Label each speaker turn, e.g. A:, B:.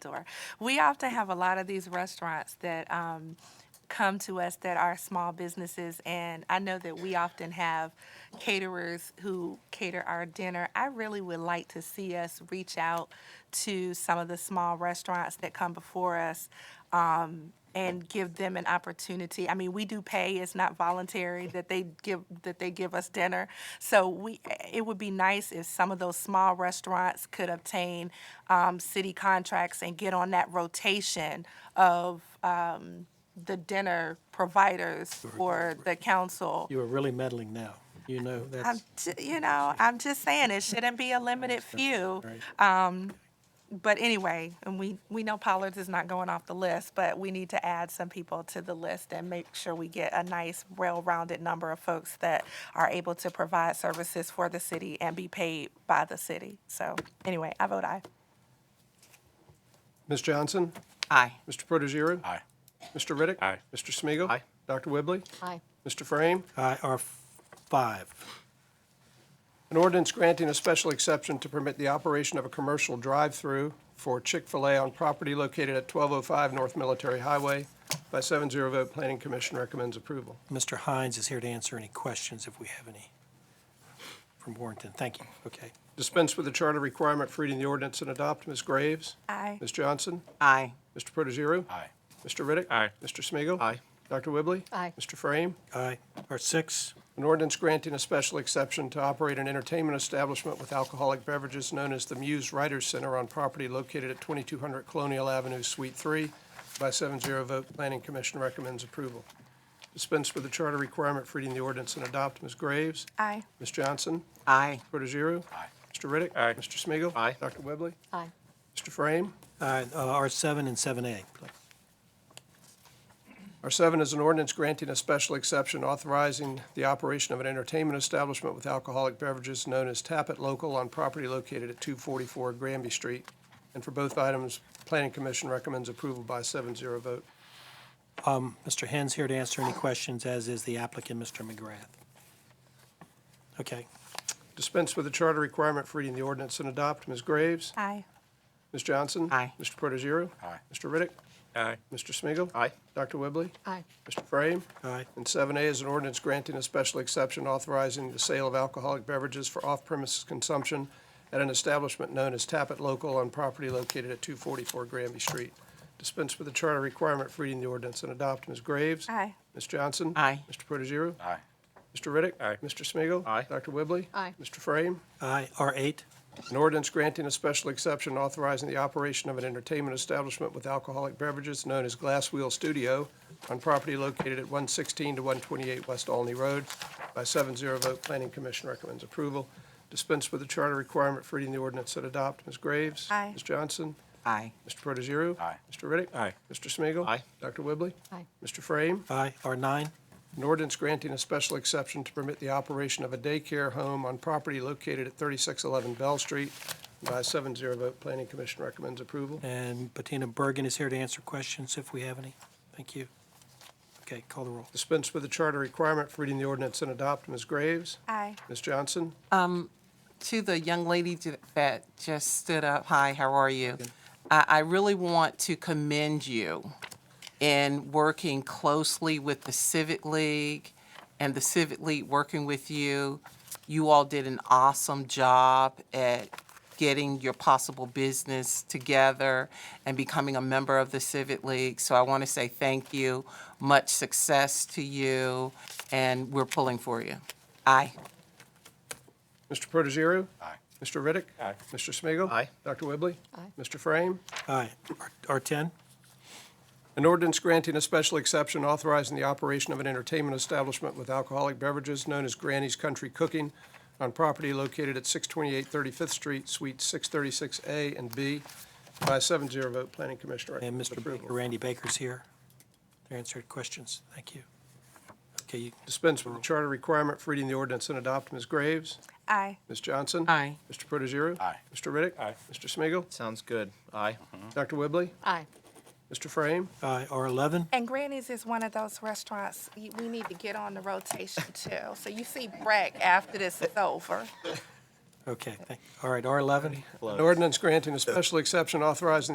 A: store. We often have a lot of these restaurants that um, come to us that are small businesses, and I know that we often have caterers who cater our dinner. I really would like to see us reach out to some of the small restaurants that come before us um, and give them an opportunity. I mean, we do pay; it's not voluntary that they give that they give us dinner. So we, it would be nice if some of those small restaurants could obtain um, city contracts and get on that rotation of um, the dinner providers for the council.
B: You are really meddling now. You know,
A: I'm,
B: that's,
A: j- you know, I'm just saying it shouldn't be a limited few.
B: right.
A: But anyway, and we, we know Pollard's is not going off the list, but we need to add some people to the list and make sure we get a nice, well-rounded number of folks that are able to provide services for the city and be paid by the city. So anyway, I vote aye.
B: Ms. Johnson?
C: Aye.
B: Mr. Protogiru?
D: Aye.
B: Mr. Riddick?
D: Aye.
B: Mr. Smigiel,
D: Aye.
B: Dr. Whibley?
C: Aye.
B: Mr. Frame? Aye, R five. An ordinance granting a special exception to permit the operation of a commercial drive-through for Chick-fil-A on property located at 1205 North Military Highway by 7-0 vote, Planning Commission recommends approval.
E: Mr. Hines is here to answer any questions if we have any from Warrenton. Thank you. Okay.
B: Dispense with the charter requirement for reading the ordinance and adopt. Ms. Graves?
A: Aye.
B: Ms. Johnson?
C: Aye.
B: Mr. Protogiru?
D: Aye.
B: Mr. Riddick.
D: Aye.
B: Mr. Smigiel,
D: Aye.
B: Dr. Whibley.
C: Aye.
B: Mr. Frame.
E: Aye. R six,
B: An ordinance granting a special exception to operate an entertainment establishment with alcoholic beverages known as the Muse Writers Center on property located at 2200 Colonial Avenue, Suite 3. By 7-0 vote, Planning Commission recommends approval. Dispense with the charter requirement for reading the ordinance and adopt. Ms. Graves.
A: Aye.
B: Ms. Johnson.
C: Aye.
B: Protogiru. Aye. Mr. Riddick.
D: Aye.
B: Mr. Smigiel,
D: Aye.
B: Dr. Whibley.
C: Aye.
B: Mr. Frame.
E: uh, R seven and seven A.
B: R7 is an ordinance granting a special exception authorizing the operation of an entertainment establishment with alcoholic beverages known as Tappet Local on property located at 244 Granby Street. And for both items, Planning Commission recommends approval by 7-0 vote.
E: Mr. Hens here to answer any questions, as is the applicant, Mr. McGrath. Okay.
B: Dispense with the charter requirement for reading the ordinance and adopt. Ms. Graves?
A: Aye.
B: Ms. Johnson?
C: Aye.
B: Mr. Protogiru?
D: Aye.
B: Mr. Riddick?
D: Aye.
B: Mr. Smigiel,
D: Aye.
B: Dr. Whibley?
C: Aye.
B: Mr. Frame?
E: Aye.
B: And seven A is an ordinance granting a special exception authorizing the sale of alcoholic beverages for off-premises consumption at an establishment known as Tappet Local on property located at two forty-four Granby Street. Dispense with the charter requirement for reading the ordinance and adopt. Ms. Graves?
A: Aye.
B: Ms. Johnson?
C: Aye.
B: Mr. Protogiru?
D: Aye.
B: Mr. Riddick?
D: Aye.
B: Mr. Smigiel,
D: Aye.
B: Dr. Whibley?
C: Aye.
B: Mr. Frame?
E: Aye. R eight,
B: An ordinance granting a special exception authorizing the operation of an entertainment establishment with alcoholic beverages known as Glass Wheel Studio on property located at 116 to 128 West Alney Road. By 7-0 vote, Planning Commission recommends approval. Dispense with the charter requirement for reading the ordinance and adopt. Ms. Graves?
A: Aye.
B: Ms. Johnson?
C: Aye.
B: Mr. Protogiru?
D: Aye.
B: Mr. Riddick?
D: Aye.
B: Mr. Smigiel,
D: Aye.
B: Dr. Whibley?
C: Aye.
B: Mr. Frame?
E: aye. R nine,
B: An ordinance granting a special exception to permit the operation of a daycare home on property located at 3611 Bell Street. By a 7-0 vote, Planning Commission recommends approval.
E: and Bettina Bergen is here to answer questions if we have any. Thank you. Okay, call the roll.
B: Dispense with the charter requirement for reading the ordinance and adopt. Ms. Graves?
A: Aye.
B: Ms. Johnson?
C: To the young lady ju- that just stood up, hi, how are you? I, I really want to commend you in working closely with the Civic League and the Civic League working with you. You all did an awesome job at getting your possible business together and becoming a member of the Civic League. So I want to say thank you, much success to you, and we're pulling for you. Aye.
B: Mr. Protogiru?
D: Aye.
B: Mr. Riddick?
D: Aye.
B: Mr. Smigiel,
D: Aye.
B: Dr. Whibley?
C: Aye.
B: Mr. Frame?
E: Aye. R ten,
B: An ordinance granting a special exception authorizing the operation of an entertainment establishment with alcoholic beverages known as Granny's Country Cooking on property located at 628 35th Street, Suites 636A and B. By a 7-0 vote, Planning Commission
E: and
B: recommends
E: Mr. Baker,
B: approval.
E: Randy Baker's here to answer questions. Thank you. Okay, you-
B: Dispense with the charter requirement for reading the ordinance and adopt. Ms. Graves?
A: Aye.
B: Ms. Johnson?
C: Aye.
B: Mr. Protogiru?
D: Aye.
B: Mr. Riddick?
D: Aye.
B: Mr. Smigiel,
E: Mm-hmm.
D: Sounds good. Aye.
B: Dr. Whibley?
C: Aye.
B: Mr. Frame?
E: aye. uh, R eleven,
A: And Granny's is one of those restaurants, y- we need to get on the rotation too. So you see Breck after this is over.
E: Okay, thank, all right, R eleven.
B: An ordinance granting a special exception authorizing